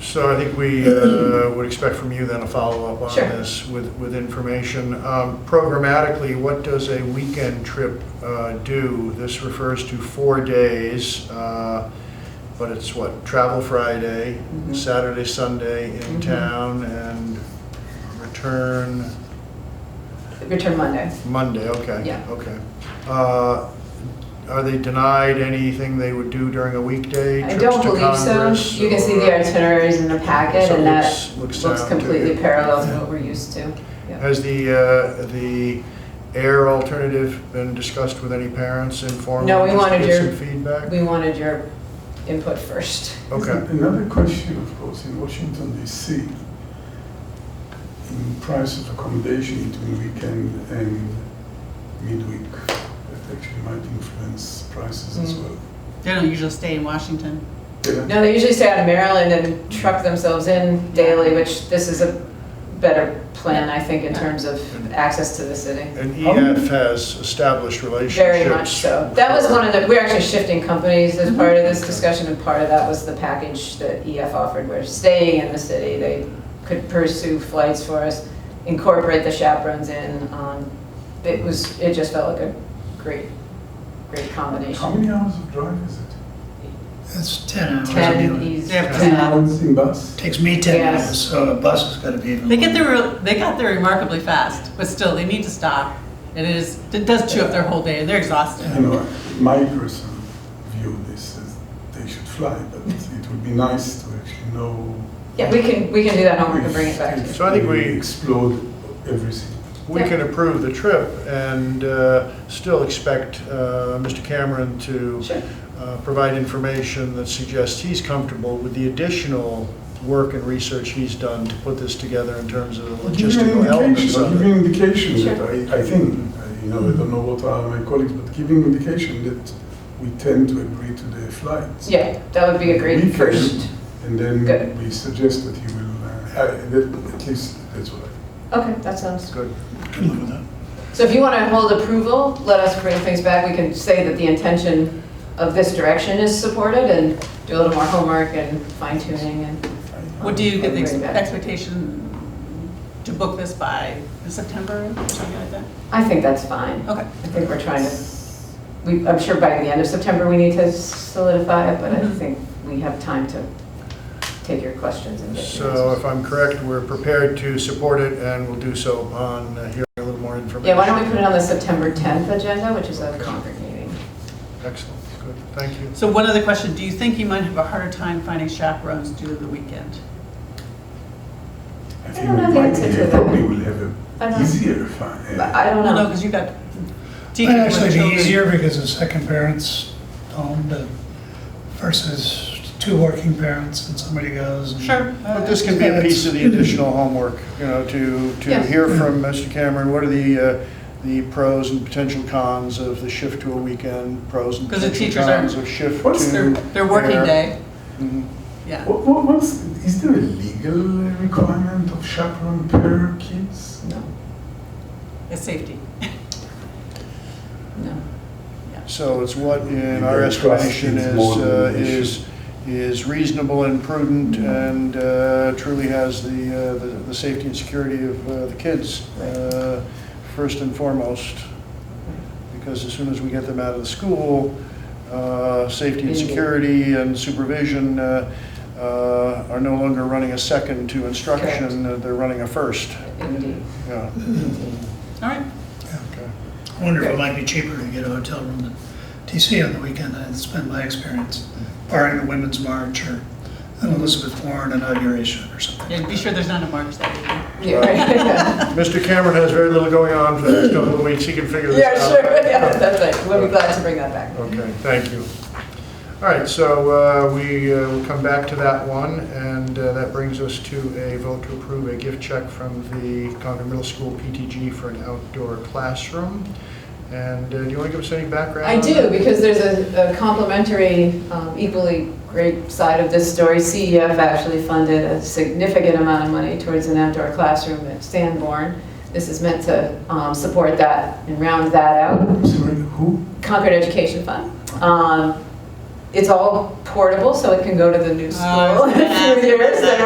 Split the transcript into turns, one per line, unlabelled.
So I think we uh, would expect from you then a follow-up on
Sure.
this with, with information. Um, Programmatically, what does a weekend trip uh, do? This refers to four days, uh, but it's what, travel Friday,
Mhm.
Saturday, Sunday in
Mhm.
town, and return
Return Monday.
Monday, okay.
Yeah.
Okay. Uh, Are they denied anything they would do during a weekday?
I
trips
don't
to
believe so.
Congress,
You can see
or-
the itineraries in the packet
So
and
it
that
looks- looks
looks
sound to
completely
you.
parallel to what we're used to. Yeah.
Has the, uh, the air alternative been discussed with any parents informally?
No, we
Just
wanted
get
your-
some feedback?
We wanted your input first.
Okay,
Another question, of course, in Washington DC, in price of accommodation between weekend and midweek, that actually might influence prices as
Mm.
well.
They don't usually stay in Washington.
Yeah.
No, they usually stay out of Maryland and truck themselves in daily, which this is a better plan, I think, in terms of access to the city.
and EF has established relationships.
Oh. Very much so. That was one of the, we're actually shifting companies as part of this
Mm-hmm.
discussion, and part of that was the package that EF offered, where staying in the city, they could pursue flights for us, incorporate the chaperones in. um, It was, it just felt like a great, great
How
combination.
many hours of drive is it?
That's 10 hours.
Ten,
anyway.
he's,
They have
ten.
ten.
Hours in bus?
Takes me 10
Yes.
minutes, so a bus has got to be even.
They get
longer.
there, real- they got there remarkably fast, but still, they need to stop. It is, it does chew up their whole day, they're
You
exhausted.
know, my personal view of this is they should fly, but it would be nice to actually know.
yeah, we can, we can do that homework and bring it back to you.
So I think we-
Explode everything.
We can approve the trip and uh, still expect uh, Mr. Cameron to
Sure.
uh, provide information that suggests he's comfortable with the additional work and research he's done to put this together in terms of the
I'll Give you an
logistical elements
indication,
of
I'll give
it.
you an indication
Sure.
that I, I think, I- you know, I don't know what are my colleagues, but giving indication that we tend to agree to the flights.
Yeah, that would be a great
Weekend,
first.
And
Good.
then we suggest that you will, uh, I- that- at least that's what I.
Okay, that sounds good.
Can live with that.
So if you want to hold approval, let us bring things back. We can say that the intention of this direction is supported and do a little more homework and fine tuning and
I-
What do you get the ex-
Bring it back.
expectation to book this by September, or something like that?
I think that's fine.
Okay.
I think we're trying to, we, I'm sure by the end of September, we need to solidify it, but I think we have time to take your questions and get your
So if
answers.
I'm correct, we're prepared to support it and we'll do so upon uh, hearing a little more information.
Yeah, why don't we put it on the September 10th agenda, which is a Concord meeting?
Excellent, good, thank you.
So one other question, do you think you might have a harder time finding chaperones due to the weekend?
I
don't
think
know
we
the
might,
answer to
be-
that.
probably will have
I
a
don't-
easier fun.
But I don't
Well, no,
know.
because you've got
Might
teachers with
actually be
children.
easier because the second parent's home to- versus two working parents and somebody goes. and-
Sure. Uh,
But this can be a piece of the additional homework, you know, to, to
Yes.
hear from Mr. Cameron, what are the, uh, the pros and potential cons of the shift to a weekend, pros and
'Cause the
potential
teachers aren't-
cons of shift to.
What's
Their, their working
air.
day,
Mhm.
yeah.
What, what, what's, is there a legal requirement of chaperone per kids?
No,
It's safety.
no.
So it's what in
You
our
don't trust
estimation
these
is,
more than
uh,
they should.
is, is reasonable and prudent and uh, truly has the, uh, the, the safety and security of uh, the kids uh, first and foremost. Because as soon as we get them out of the school, uh, safety and
Indeed.
security and supervision uh, uh, are no longer running a second to instruction, uh, they're running a first.
Indeed.
Yeah,
All right,
okay.
I wonder if it might be cheaper to get a hotel room in DC on the weekend. It's been my experience, barring the Women's March or an Elizabeth Warren inauguration or something.
yeah, be sure there's not a march that weekend.
Yeah, right.
Mr. Cameron has very little going on for the next couple of weeks, he can figure this out.
Yeah, sure, yeah, that's right. We'll be glad to bring that back.
Okay, thank you. All right, so uh, we uh, will come back to that one, and uh, that brings us to a vote to approve a gift check from the Concord Middle School PTG for an outdoor classroom. And uh, do you want to give us any background?
I
on
do,
that?
because there's a a complementary, um, equally great side of this story. CEF actually funded a significant amount of money towards an outdoor classroom at Sanborn. This is meant to um, support that and round that out.
Sorry, who?
Concord Education Fund. Um, It's all portable, so it can go to the new
Oh, I was
school in
gonna
a
ask
few
about
years.
that.